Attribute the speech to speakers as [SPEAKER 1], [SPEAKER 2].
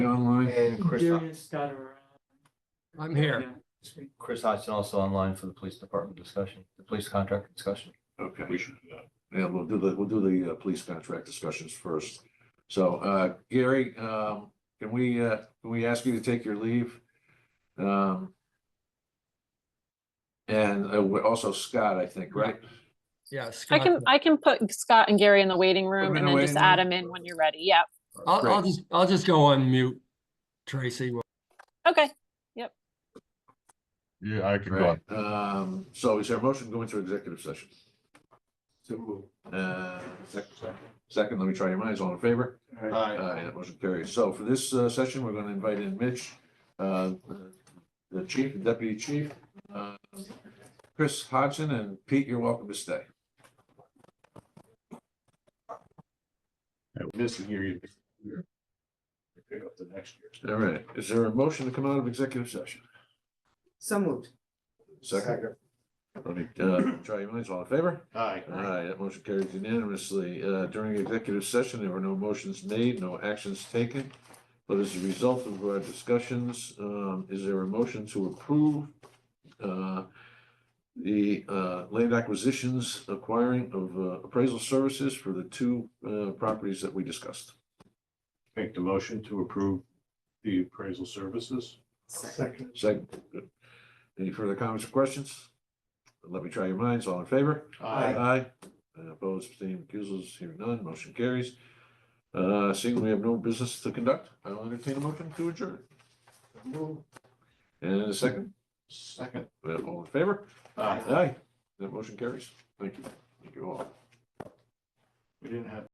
[SPEAKER 1] online.
[SPEAKER 2] And Chris,
[SPEAKER 3] Darius got around.
[SPEAKER 4] I'm here.
[SPEAKER 3] Yeah, this week.
[SPEAKER 2] Chris Hodgson also online for the police department discussion, the police contract discussion.
[SPEAKER 5] Okay.
[SPEAKER 6] We should do that.
[SPEAKER 5] Yeah, we'll do the, we'll do the uh, police contract discussions first. So, uh, Gary, um, can we, uh, can we ask you to take your leave? Um. And uh, we- also Scott, I think, right?
[SPEAKER 4] Yeah.
[SPEAKER 7] I
[SPEAKER 4] Scott.
[SPEAKER 7] can, I can put Scott and Gary in the waiting
[SPEAKER 5] in
[SPEAKER 7] room and
[SPEAKER 5] the
[SPEAKER 7] then just
[SPEAKER 5] waiting
[SPEAKER 7] add
[SPEAKER 5] room.
[SPEAKER 7] them in when you're ready. Yeah.
[SPEAKER 4] I'll, I'll
[SPEAKER 5] Great.
[SPEAKER 4] just, I'll just go on mute, Tracy.
[SPEAKER 7] Okay.
[SPEAKER 6] Yeah, I could go.
[SPEAKER 5] Right,
[SPEAKER 6] on.
[SPEAKER 5] um, so is there a motion to go into executive session? Uh, sec- second, let me try your minds, all in favor? Aye, that motion carries. So for this uh, session, we're gonna invite in Mitch, uh, the chief, and deputy chief, uh, Chris Hodgson, and Pete, you're welcome to stay.
[SPEAKER 6] I was Missing here. you- Pick up the next year.
[SPEAKER 5] All right, is there a motion to come out of executive session?
[SPEAKER 8] So moved.
[SPEAKER 5] Second. Let me, uh, try your minds, all in favor?
[SPEAKER 6] Aye.
[SPEAKER 5] Aye, that motion carries unanimously. Uh, during executive session, there were no motions made, no actions taken. But as a result of our discussions, um, is there a motion to approve, uh, the, uh, land acquisitions acquiring of uh, appraisal services for the two, uh, properties that we discussed?
[SPEAKER 6] Make the motion to approve the appraisal services.
[SPEAKER 8] Second.
[SPEAKER 5] Second, any further comments or questions? Let me try your minds. All in favor? Aye. Uh, Opposed, abstained, recusals, hearing none, motion carries. Uh, Seeing we have no business to conduct, I'll entertain a motion to adjourn. And a second,
[SPEAKER 6] Second.
[SPEAKER 5] Uh, all in favor?
[SPEAKER 6] Aye.
[SPEAKER 5] Aye. That motion carries. Thank you. Thank you all.
[SPEAKER 6] We didn't have